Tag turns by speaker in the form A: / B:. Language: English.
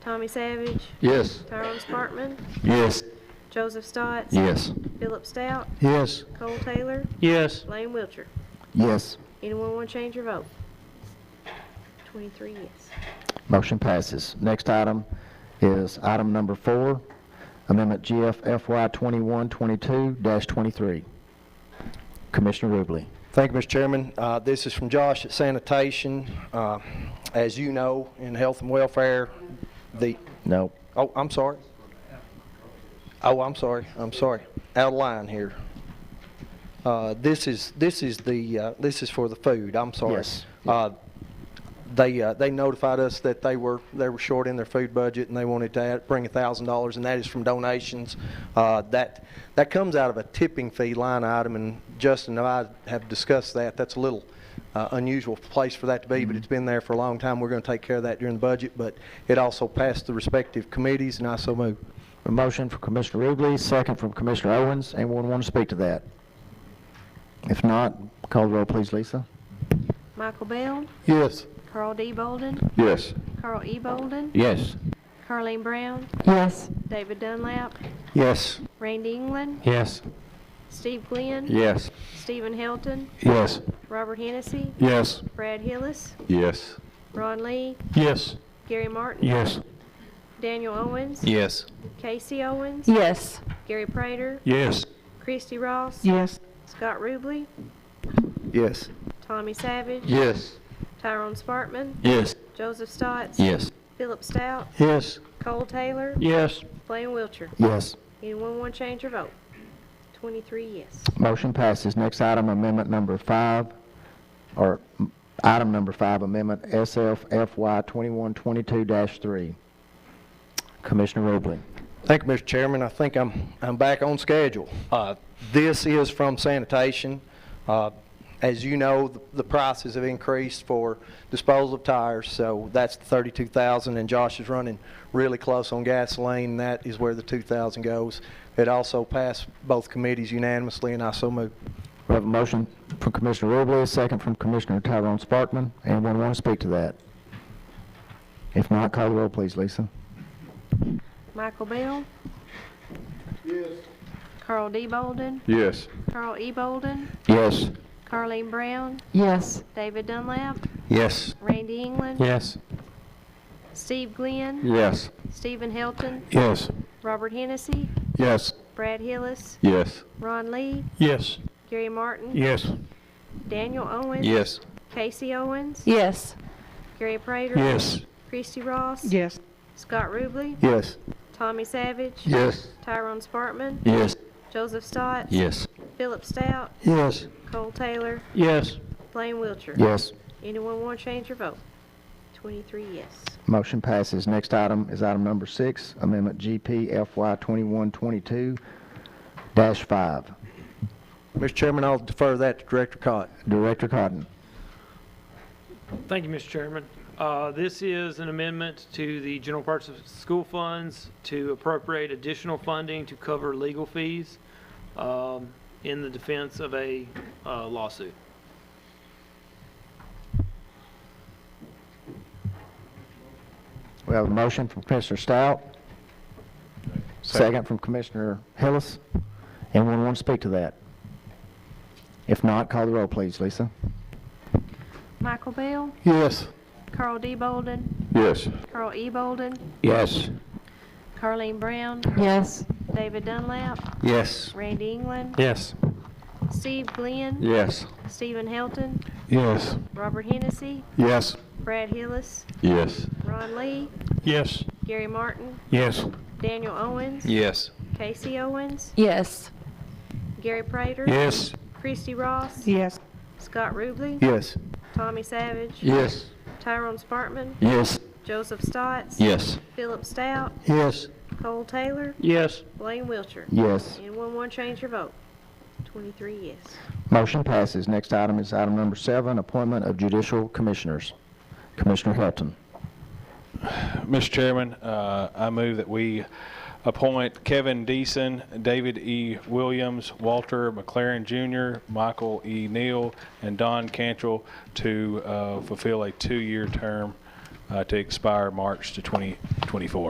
A: Tommy Savage,
B: Yes.
A: Tyrone Sparkman,
B: Yes.
A: Joseph Stotts.
B: Yes.
A: Philip Stout,
B: Yes.
A: Cole Taylor,
C: Yes.
A: Lane Wilcher.
B: Yes.
A: Anyone want to change your vote? Twenty-three yes.
B: Motion passes. Next item is item number four, Amendment GF FY 2122-23. Commissioner Rubley.
D: Thank you, Mr. Chairman. Uh, This is from Josh at Sanitation. Uh, As you know, in health and welfare, the,
B: No.
D: oh, I'm sorry. Oh, I'm sorry, I'm sorry. Out of line here. Uh, This is, this is the, uh, this is for the food, I'm sorry.
B: Yes.
D: Uh, They, uh, they notified us that they were, they were short in their food budget and they wanted to add- bring $1,000, and that is from donations. Uh, That, that comes out of a tipping fee line item, and Justin and I have discussed that. That's a little uh, unusual place for that to be, but it's been there for a long time. We're going to take care of that during the budget, but it also passed the respective committees, and I so move.
B: A motion from Commissioner Rubley, second from Commissioner Owens. Anyone want to speak to that? If not, call the roll, please, Lisa.
A: Michael Bell,
B: Yes.
A: Carl D. Bolden,
B: Yes.
A: Carl E. Bolden,
B: Yes.
A: Carleen Brown,
E: yes,
A: David Dunlap,
B: Yes.
A: Randy England,
C: Yes.
A: Steve Glenn,
B: Yes.
A: Stephen Helton,
B: Yes.
A: Robert Hennessy,
B: Yes.
A: Brad Hillis,
B: Yes.
A: Ron Lee,
C: Yes.
A: Gary Martin,
C: Yes.
A: Daniel Owens,
C: Yes.
A: Casey Owens,
E: yes,
A: Gary Prater,
C: Yes.
A: Christy Ross,
E: yes,
A: Scott Ruble,
B: Yes.
A: Tommy Savage,
B: Yes.
A: Tyrone Spartman,
C: Yes.
A: Joseph Stotts,
B: Yes.
A: Philip Stout,
C: Yes.
A: Cole Taylor,
C: Yes.
A: Blaine Wiltshire.
B: Yes.
A: Anyone want to change your vote? Twenty-three yes.
B: Motion passes. Next item, amendment number five, or mm, item number five, amendment SFFY 2122-3. Commissioner Rubley.
D: Thank you, Mr. Chairman. I think I'm, I'm back on schedule. Uh, This is from sanitation. Uh, As you know, the- the prices have increased for disposal of tires, so that's the 32,000, and Josh is running really close on gasoline, and that is where the 2,000 goes. It also passed both committees unanimously, and I so move.
B: We have a motion from Commissioner Rubley, a second from Commissioner Tyrone Sparkman. Anyone want to speak to that? If not, call the roll, please, Lisa.
A: Michael Bell? Yes. Carl D. Bolden,
F: Yes.
A: Carl E. Bolden,
F: Yes.
A: Carleen Brown,
E: yes,
A: David Dunlap,
F: Yes.
A: Randy England,
C: Yes.
A: Steve Glenn,
F: Yes.
A: Stephen Helton,
F: Yes.
A: Robert Hennessy,
F: Yes.
A: Brad Hillis,
F: Yes.
A: Ron Lee,
C: Yes.
A: Gary Martin,
C: Yes.
A: Daniel Owens,
F: Yes.
A: Casey Owens,
E: yes,
A: Gary Prater,
F: Yes.
A: Christy Ross,
E: yes,
A: Scott Ruble,
F: Yes.
A: Tommy Savage,
F: Yes.
A: Tyrone Spartman,
F: Yes.
A: Joseph Stotts,
F: Yes.
A: Philip Stout,
F: Yes.
A: Cole Taylor,
C: Yes.
A: Blaine Wiltshire.
B: Yes.
A: Anyone want to change your vote? Twenty-three yes.
B: Motion passes. Next item is item number six, amendment GPFY 2122-5.
D: Mr. Chairman, I'll defer that to Director Cott.
B: Director Cotton.
G: Thank you, Mr. Chairman. Uh, This is an amendment to the general parts of school funds to appropriate additional funding to cover legal fees um, in the defense of a uh, lawsuit.
B: We have a motion from Commissioner Stout. Second from Commissioner Hillis. Anyone want to speak to that? If not, call the roll, please, Lisa.
A: Michael Bell,
F: Yes.
A: Carl D. Bolden,
F: Yes.
A: Carl E. Bolden,
F: Yes.
A: Carleen Brown,
E: yes,
A: David Dunlap,
F: Yes.
A: Randy England,
C: Yes.
A: Steve Glenn,
F: Yes.
A: Stephen Helton,
F: Yes.
A: Robert Hennessy,
F: Yes.
A: Brad Hillis,
F: Yes.
A: Ron Lee,
C: Yes.
A: Gary Martin,
C: Yes.
A: Daniel Owens,
F: Yes.
A: Casey Owens,
E: yes,
A: Gary Prater,
F: Yes.
A: Christy Ross,
E: yes,
A: Scott Ruble,
F: Yes.
A: Tommy Savage,
F: Yes.
A: Tyrone Spartman,
F: Yes.
A: Joseph Stotts,
F: Yes.
A: Philip Stout,
F: Yes.
A: Cole Taylor,
C: Yes.
A: Blaine Wiltshire.
B: Yes.
A: Anyone want to change your vote? Twenty-three yes.
B: Motion passes. Next item is item number seven, appointment of judicial commissioners. Commissioner Hilton.
H: Mr. Chairman, uh, I move that we appoint Kevin Deason, David E. Williams, Walter McLaren Jr., Michael E. Neal, and Don Cantrell to uh, fulfill a two-year term uh, to expire March to 2024.